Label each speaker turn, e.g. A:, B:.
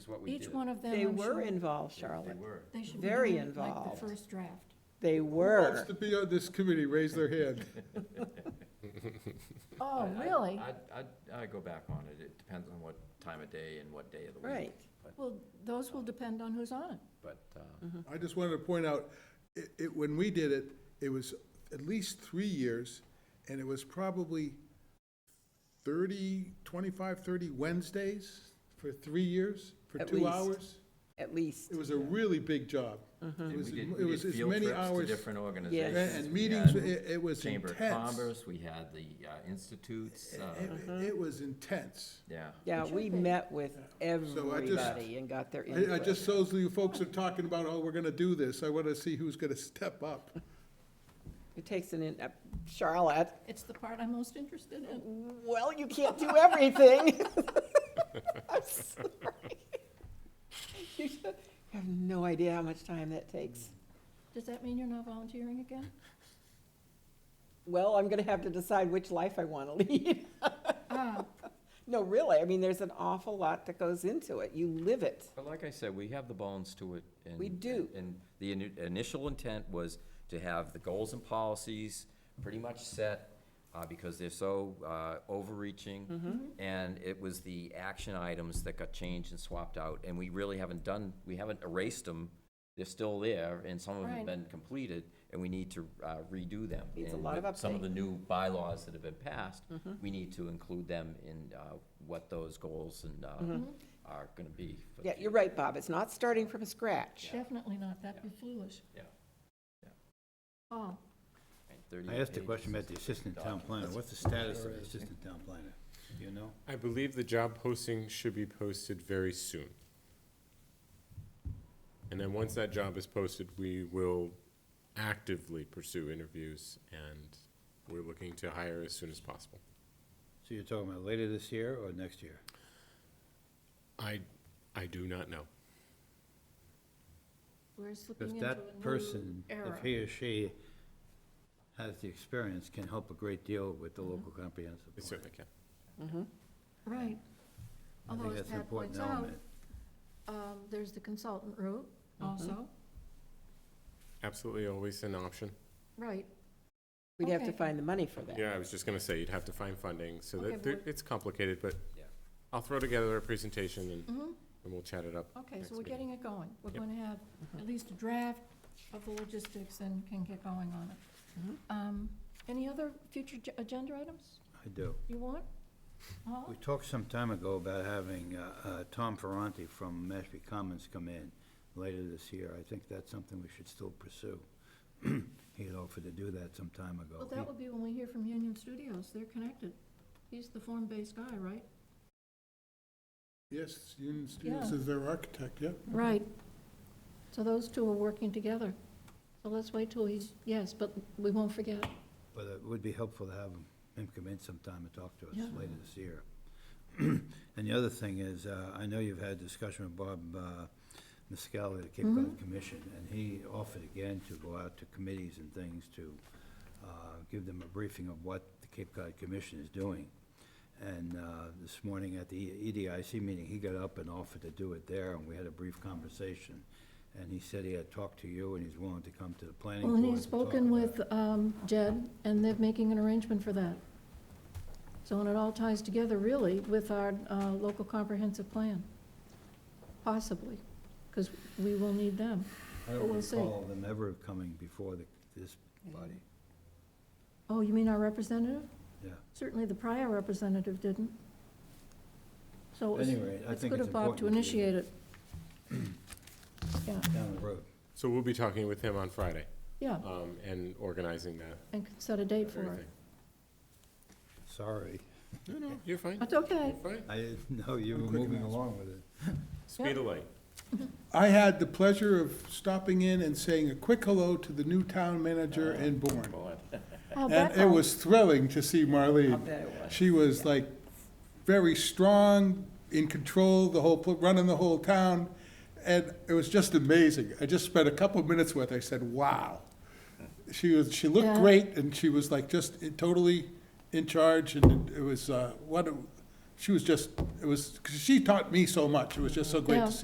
A: what we did.
B: Each one of them,
C: They
B: I'm
C: were
B: sure,
C: involved,
A: They- they
C: Charlotte.
A: were.
B: they should be
C: very
B: doing, like
C: involved.
B: the first draft.
C: They
D: Who wants
C: were.
D: to be on this committee, raise their hand.
B: Oh,
A: I- I-
B: really?
A: I'd, I'd, I'd go back on it. It depends on what time of day and what day of the week.
C: Right.
B: Well, those will depend on who's on it.
A: But, uh,
B: Mm-hmm.
D: I just wanted to point out, it, it, when we did it, it was at least three years, and it was probably 30, 25, 30 Wednesdays for three years, for
C: At
D: two
C: least.
D: hours.
C: At least.
D: It was a really big job.
C: Mm-hmm.
D: It
A: and
D: was,
A: we
D: it
A: did, we
D: was
A: did
D: as
A: field
D: many
A: trips to
D: hours.
A: different
D: and-
A: organizations.
D: And
A: We
D: meetings,
A: had
D: it, it was
A: Chamber
D: intense.
A: of Commerce, we had the uh, institutes, uh,
D: It-
C: Mm-hmm.
D: It was intense.
A: yeah.
C: Yeah,
B: should
C: we
B: be.
C: met with
D: just-
C: everybody and got their
D: I, I
C: input.
D: just, those of you folks are talking about, oh, we're gonna do this, I wanna see who's gonna step up.
C: It takes an, in- uh, Charlotte,
B: It's the part I'm most interested in.
C: well, you can't do everything. I'm sorry. You should- you have no idea how much time that takes.
B: Does that mean you're not volunteering again?
C: Well, I'm gonna have to decide which life I wanna lead.
B: Ah,
C: No, really, I mean, there's an awful lot that goes into it. You live it.
A: But like I said, we have the bones to it. and-
C: We do.
A: And the ini- initial intent was to have the goals and policies pretty much set, uh, because they're so, uh,
C: Mm-hmm.
A: overreaching. And it was the action items that got changed and swapped out, and we really haven't done, we haven't erased them. They're still there, and some of them
B: Right.
A: have been completed, and we need to uh, redo them.
C: Needs a
A: And
C: lot of
A: with Some of
C: update.
A: the new bylaws that have been passed,
C: Mm-hmm.
A: we need to include them in, uh, what those goals and, uh, are gonna be. for the
C: Mm-hmm. Yeah,
A: future.
C: you're right, Bob, it's not starting from scratch.
B: definitely not, that'd be foolish.
A: Yeah.
B: Oh,
E: I asked a question about the assistant town planner. What's the status of the assistant town planner? Do you know?
F: I believe the job posting should be posted very soon. And then once that job is posted, we will actively pursue interviews and we're looking to hire as soon as possible.
E: So you're talking about later this year or next year?
F: I, I do not know.
B: we're slipping
E: If
B: into a
E: that
B: new
E: person,
B: era.
E: if he or she has the experience, can help a great deal with the local
B: Mm-hmm.
E: comprehensive
F: They
E: plan.
F: certainly can.
B: Right.
E: I
B: Although,
E: think
B: as
E: that's an
B: Pat points
E: important
B: out,
E: element.
B: um, there's the consultant route also,
F: Absolutely always an option.
B: right.
C: We'd have to
B: Okay.
C: find the money for that.
F: Yeah, I was just gonna say, you'd have to find funding, so
B: Okay,
F: that, there-
B: but-
F: it's complicated, but
A: Yeah.
F: I'll throw together a presentation and,
B: Mm-hmm.
F: and we'll chat it up.
B: Okay,
F: next
B: so we're
F: meeting.
B: getting it going. We're
F: Yep.
B: going to have at least a draft of the logistics and can get going on it.
C: Mhm.
B: Um, Any other future ge- agenda items
E: I do.
B: you want? Paul?
E: We talked some time ago about having uh, uh, Tom Ferranti from Mashpee Commons come in later this year. I think that's something we should still pursue. He had offered to do that some time ago.
B: Well, that
E: He-
B: will be when we hear from Union Studios. They're connected. He's the form-based guy, right?
D: Yes, Union Students
B: Yeah.
D: is their architect, yeah.
B: Right. So those two are working together. So let's wait till he's, yes, but we won't forget.
E: But it would be helpful to have him- him come in sometime and talk to
B: Yeah.
E: us later this year. And the other thing is, uh, I know you've had discussion with Bob uh, Miscali, of the Cape Cod
B: Mm-hmm.
E: Commission, and he offered again to go out to committees and things to uh, give them a briefing of what the Cape Cod Commission is doing. And uh, this morning at the E, EDIC meeting, he got up and offered to do it there, and we had a brief conversation. And he said he had talked to you, and he's willing to come to the planning
B: Well,
E: board.
B: and he's
E: to talk
B: spoken
E: about
B: with
E: it.
B: um, Jed, and they're making an arrangement for that. So, and it all ties together really with our uh, local comprehensive plan, possibly, because we will need them.
E: I
B: But
E: don't
B: we'll see.
E: recall them ever coming before the, this body,
B: Oh, you mean our representative?
E: yeah.
B: Certainly the prior representative didn't. So it was-
E: Anyway, I
B: it's
E: think
B: good
E: it's
B: of Bob to
E: important to-
B: initiate it. Yeah,
E: Down the road.
F: So we'll be talking with him on Friday,
B: yeah,
F: um, and organizing that.
B: and can set a date for it.
F: everything.
E: Sorry.
F: No, no, you're fine.
B: That's okay.
F: You're fine.
E: I didn't know you were
D: quick
E: moving
D: enough.
E: along with it.
F: Speed of light.
D: I had the pleasure of stopping in and saying a quick hello to the new town manager in Bourne.
B: Oh,
D: And it
B: Bethel.
D: was thrilling to see
C: I'll
D: Marlene.
C: bet it was.
D: She was like very strong, in control, the whole, pl- running the whole town. And it was just amazing. I just spent a couple of minutes with her. I said, wow. She was, she looked
B: Yeah.
D: great and she was like just totally in charge and it was, uh, what, a- she was just, it was, 'cause she taught me so much. It was just so great
B: Yeah.
D: to see.